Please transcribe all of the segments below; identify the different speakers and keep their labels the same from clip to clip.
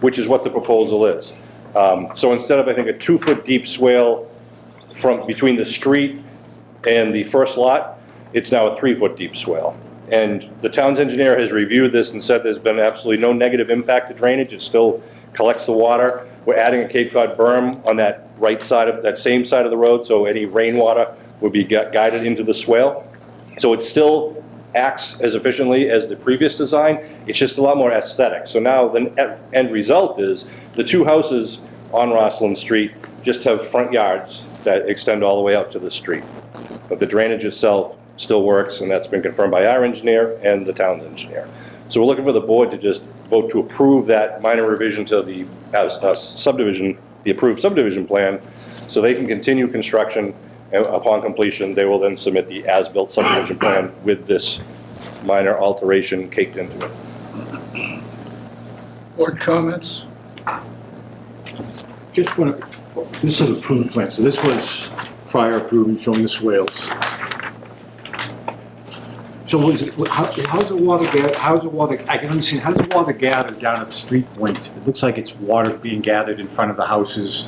Speaker 1: which is what the proposal is. Um, So instead of, I think, a two-foot deep swale from, between the street and the first lot, it's now a three-foot deep swale. And the town's engineer has reviewed this and said there's been absolutely no negative impact to drainage, it still collects the water. We're adding a Cape Cod berm on that right side of, that same side of the road, so any rainwater would be gu- guided into the swale. So it still acts as efficiently as the previous design, it's just a lot more aesthetic. So now the net end result is, the two houses on Rosslyn Street just have front yards that extend all the way out to the street. But the drainage itself still works, and that's been confirmed by our engineer and the town's engineer. So we're looking for the board to just vote to approve that minor revision to the uh, uh, subdivision, the approved subdivision plan, so they can continue construction, and upon completion, they will then submit the as-built subdivision plan with this minor alteration caked into it.
Speaker 2: Board comments?
Speaker 3: Just want to, this is a prune plant, so this was prior approved showing the swales. So was, it- how- how's the water, ga- how's the water, I can understand, how's the water gathered down at the street point? It looks like it's water being gathered in front of the houses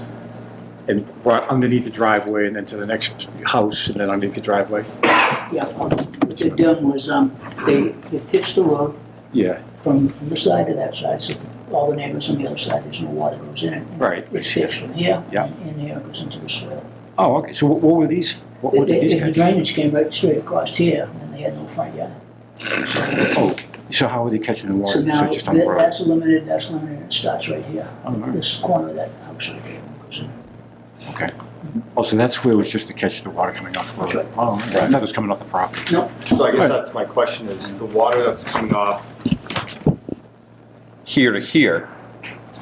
Speaker 3: and brought underneath the driveway and then to the next house and then underneath the driveway?
Speaker 4: Yeah, um, what they done was, um, they, they pitched the road
Speaker 3: Yeah.
Speaker 4: from, from the side to that side, so all the neighbors on the other side, there's no water goes in.
Speaker 3: Right.
Speaker 4: It's pitched from here.
Speaker 3: Yeah.
Speaker 4: And here it goes into the soil.
Speaker 3: Oh, okay, so what what were these, what
Speaker 4: The
Speaker 3: were these
Speaker 4: the- the
Speaker 3: guys?
Speaker 4: drainage came right straight across here, and they had no front yard.
Speaker 3: Oh, so how were they catching the water?
Speaker 4: So now,
Speaker 3: just on the
Speaker 4: that-
Speaker 3: road?
Speaker 4: that's limited, that's limited, it starts right here,
Speaker 3: Oh, all right.
Speaker 4: this corner of that house right there. goes in.
Speaker 3: Okay. Oh, so that's where it was just to catch the water coming off the road? Oh, okay. I thought it was coming off the property.
Speaker 4: No,
Speaker 5: So I guess that's my question is, the water that's coming off here to here,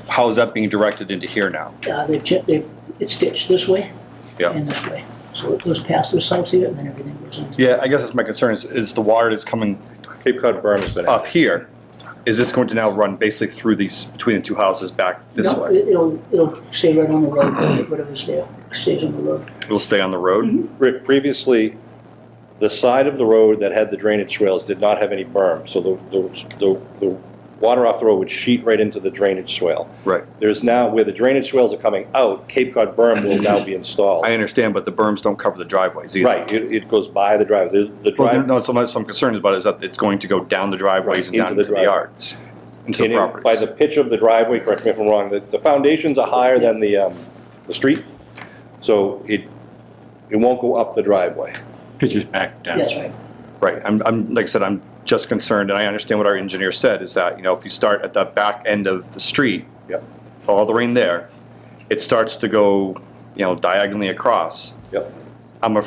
Speaker 5: how is that being directed into here now?
Speaker 4: uh, they checked, they, it's pitched this way.
Speaker 5: Yeah.
Speaker 4: And this way, so it goes past this house here, and then everything goes into.
Speaker 5: Yeah, I guess that's my concern is, is the water that's coming
Speaker 1: Cape Cod berm has been
Speaker 5: up here, is this going to now run basically through these, between the two houses back this
Speaker 4: No,
Speaker 5: way?
Speaker 4: it- It'll, it'll stay right on the road, whatever's there, stays on the road.
Speaker 5: It'll stay on the road?
Speaker 1: Rick, previously, the side of the road that had the drainage swales did not have any berm, so the, the- the, the water off the road would sheet right into the drainage swale.
Speaker 5: Right.
Speaker 1: There's now, where the drainage swales are coming out, Cape Cod berm will now be installed.
Speaker 5: I understand, but the berms don't cover the driveways either.
Speaker 1: Right, it, it goes by the drive, the, the
Speaker 5: Well,
Speaker 1: drive.
Speaker 5: no, so much, so I'm concerned about is that it's going to go down the driveways and
Speaker 1: Right,
Speaker 5: down
Speaker 1: into the
Speaker 5: into the
Speaker 1: driveway.
Speaker 5: yards, into
Speaker 1: in
Speaker 5: the
Speaker 1: it- By the
Speaker 5: properties.
Speaker 1: pitch of the driveway, correct me if I'm wrong, the, the foundations are higher than the, um, the street, so it, it won't go up the driveway.
Speaker 3: Pitches back down.
Speaker 4: That's right.
Speaker 5: Right, I'm, I'm, like I said, I'm just concerned, and I understand what our engineer said, is that, you know, if you start at the back end of the street,
Speaker 1: Yep,
Speaker 5: all the rain there, it starts to go, you know, diagonally across.
Speaker 1: yep.
Speaker 5: I'm, a,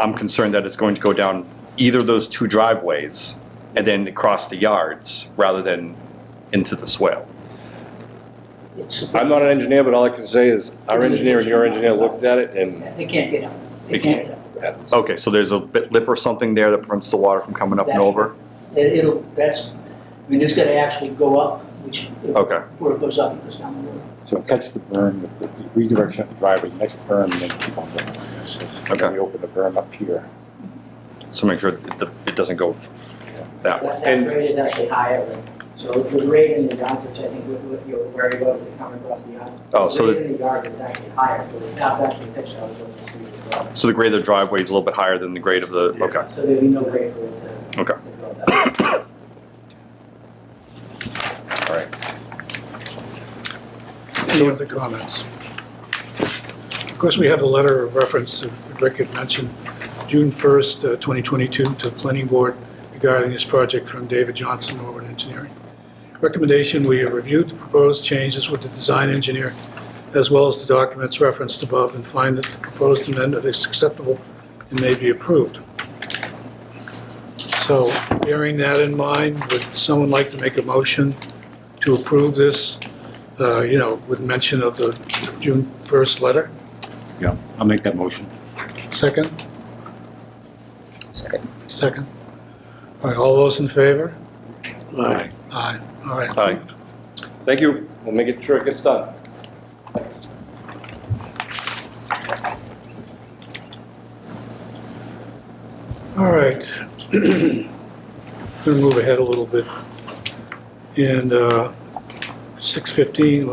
Speaker 5: I'm concerned that it's going to go down either of those two driveways and then across the yards rather than into the swale.
Speaker 4: It's,
Speaker 1: I'm not an engineer, but all I can say is our engineer and your engineer looked at it and,
Speaker 4: they can't get out. They
Speaker 5: They
Speaker 4: can't
Speaker 5: can't.
Speaker 4: get out.
Speaker 1: yeah,
Speaker 5: Okay, so there's a bit lip or something there that prevents the water from coming up and
Speaker 4: That's-
Speaker 5: over?
Speaker 4: It- It'll, that's, I mean, it's gonna actually go up, which,
Speaker 5: Okay.
Speaker 4: where it goes up, it goes down the road.
Speaker 3: So catch the berm, with the redirection of the driveway, next berm, and then keep on going. So
Speaker 5: Okay.
Speaker 3: Then we open the berm up here.
Speaker 5: So make sure it, it doesn't go that way.
Speaker 6: That that grade is actually higher, so the grade in the yards, which I think what- what you're worried about is it coming across the yards.
Speaker 5: Oh, so
Speaker 6: The
Speaker 5: the-
Speaker 6: grade in the yard is actually higher, so it's not actually pitched out towards the street as well.
Speaker 5: So the grade of the driveway is a little bit higher than the grade of the, okay.
Speaker 6: So there'd be no grade for it to.
Speaker 5: Okay.
Speaker 6: to go that way.
Speaker 5: All right.
Speaker 2: Any other comments? Of course, we have the letter of reference that Rick had mentioned, June 1st, uh, 2022, to the planning board regarding this project from David Johnson, Norwood Engineering. Recommendation, we have reviewed the proposed changes with the design engineer as well as the documents referenced above and find that the proposed amendment is acceptable and may be approved. So bearing that in mind, would someone like to make a motion to approve this uh, you know, with mention of the June 1st letter.
Speaker 3: Yeah, I'll make that motion.
Speaker 2: Second? Second. Second. All right, all those in favor?
Speaker 3: Aye.
Speaker 2: Aye. All right.
Speaker 5: Aye.
Speaker 1: thank you, we'll make it sure it gets done.
Speaker 2: All right. Going to move ahead a little bit and uh, 6:15,